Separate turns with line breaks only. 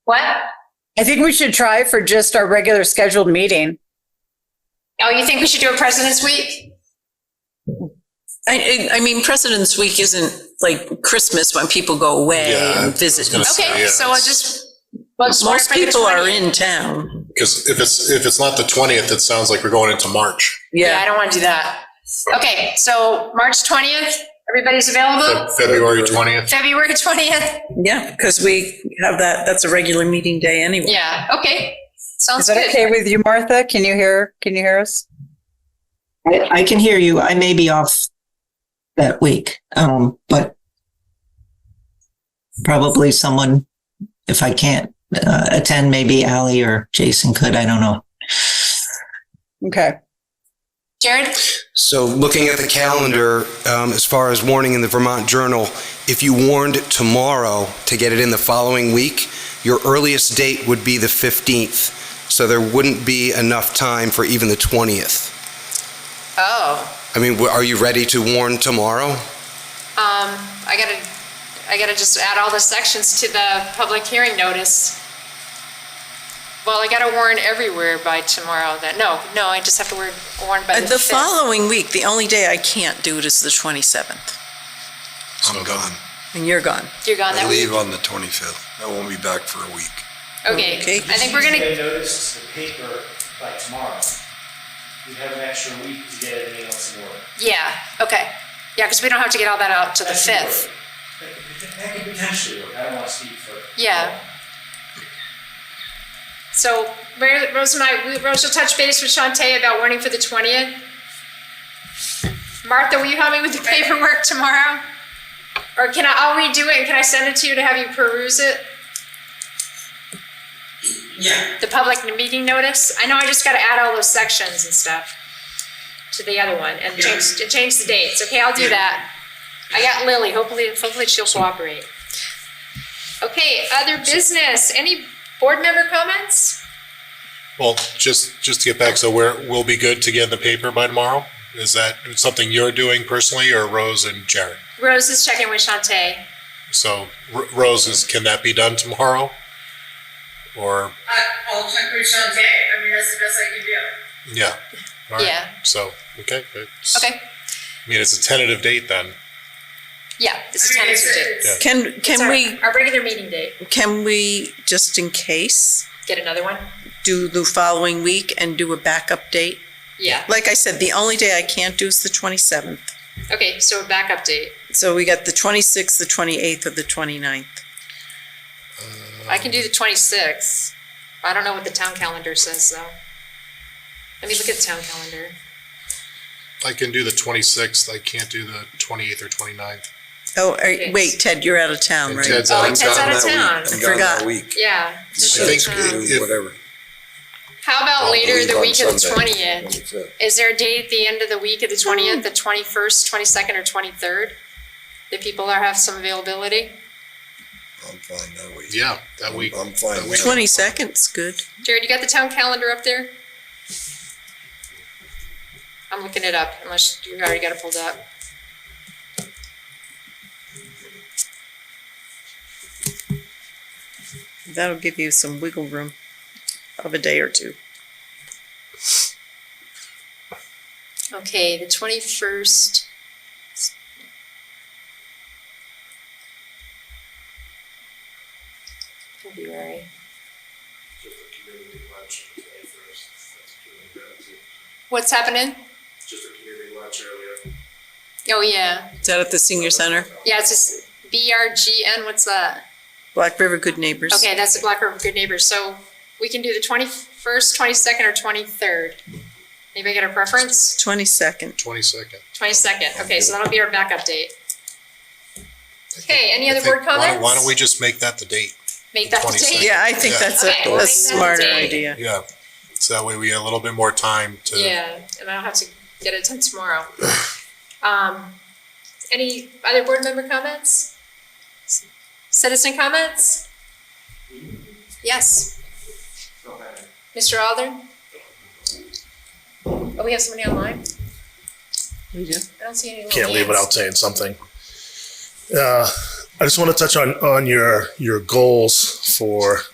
What?
I think we should try for just our regular scheduled meeting.
Oh, you think we should do a President's Week?
I, I I mean, President's Week isn't like Christmas when people go away
Yeah,
and visit.
I was gonna
Okay,
Yeah.
so I'll just. we'll just order
Most
for the
people are
20th.
in town.
Because if it's, if it's not the 20th, it sounds like we're going into March.
Yeah, I don't want to do that. Okay, so March 20th, everybody's
Fe-
available?
February 20th.
February 20th?
Yeah, because we have that, that's a regular meeting day anyway.
Yeah, okay.
Is
Sounds
that
good.
okay with you, Martha? Can you hear, can you hear us?
I, I can hear you. I may be off that week, um, but probably someone, if I can't uh, attend, maybe Ally or Jason could. I don't know.
Okay.
Jared?
So looking at the calendar, um, as far as warning in the Vermont Journal, if you warned tomorrow to get it in the following week, your earliest date would be the 15th. So there wouldn't be enough time for even the 20th.
Oh,
I mean, w- are you ready to warn tomorrow?
um, I gotta, I gotta just add all the sections to the public hearing notice. Well, I gotta warn everywhere by tomorrow then. No, no, I just have to warn, warn by
Uh,
the
The
5th.
following week, the only day I can't do it is the 27th,
I'm gone.
and you're gone.
You're gone that
I
week.
leave on the 25th. I won't be back for a week.
Okay,
Okay.
I think we're gonna,
They notice the paper by tomorrow. We have an extra week to get everything else in order.
yeah, okay. Yeah, because we don't have to get all that out to the
That could
5th.
work. That could- That could potentially work. I don't want to speak for.
Yeah. So Mary- Rose and I, we- Rose will touch base with Shantae about warning for the 20th. Martha, will you help me with the paperwork tomorrow? Or can I, I'll redo it, and can I send it to you to have you peruse it? Yeah. The public meeting notice? I know I just gotta add all those sections and stuff to the other one and change, and change the dates. Okay, I'll do that. I got Lily, hopefully, hopefully she'll cooperate. Okay, other business, any board member comments?
Well, just, just to get back, so we're, we'll be good to get in the paper by tomorrow? Is that something you're doing personally or Rose and Jared?
Rose is checking with Shantae.
So R- Rose is, can that be done tomorrow? Or,
I'll check with Sean Day. I mean, that's the best I can do.
yeah. All right.
Yeah.
So, okay. it's-
Okay,
I mean, it's a tentative date then.
yeah, this is
I
kind
mean,
of
it's,
today.
it's,
Can,
It's
can
our-
we,
Our regular meeting date,
can we, just in case,
get another one?
do the following week and do a backup date?
Yeah,
Like I said, the only day I can't do is the 27th.
okay, so a backup date.
So we got the 26th, the 28th, or the 29th.
I can do the twenty-sixth. I don't know what the town calendar says though. Let me look at the town calendar.
I can do the 26th. I can't do the 28th or 29th.
Oh, are-
Yes.
wait, Ted, you're out of town,
And
right?
Ted's
Oh,
out.
Ted's out of town.
I
I'm gone
forgot.
that week.
Yeah.
I think
Um,
if-
Whatever.
How about
I'll
later
leave
the
on
week of the
Sunday,
twentieth?
25th.
Is there a date at the end of the week of the twentieth, the twenty-first, twenty-second, or twenty-third? That people are, have some availability?
I'm fine that week.
Yeah, that week.
I'm fine.
that
with
week.
that.
22nd's good.
Jared, you got the town calendar up there? I'm looking it up, unless you already got it pulled up.
That'll give you some wiggle room of a day or two.
Okay, the twenty-first. February. What's happening?
Just a community lunch earlier.
Oh, yeah,
Is that at the senior center?
yeah, it's just BRGN, what's that?
Black River Good Neighbors.
Okay, that's the Black River Good Neighbors, so we can do the twenty-first, twenty-second, or twenty-third. Anybody got a preference?
22nd.
22nd.
Twenty-second, okay, so that'll be our backup date. Okay, any
I
other
think-
board
why don't-
comments?
Why don't we just make that the date?
Make that the date?
22nd.
Yeah, I think
Yeah.
that's
Okay,
a-
we'll
a
make that a
smarter
day.
idea.
Yeah. So that way we get a little bit more time to.
Yeah, and I don't have to get it done tomorrow. Um, any other board member comments? Citizen comments? Yes. Mr. Alder? Oh, we have somebody online?
We do.
I don't see any. little
can't leave
hands.
without saying something. Uh, I just want to touch on on your your goals for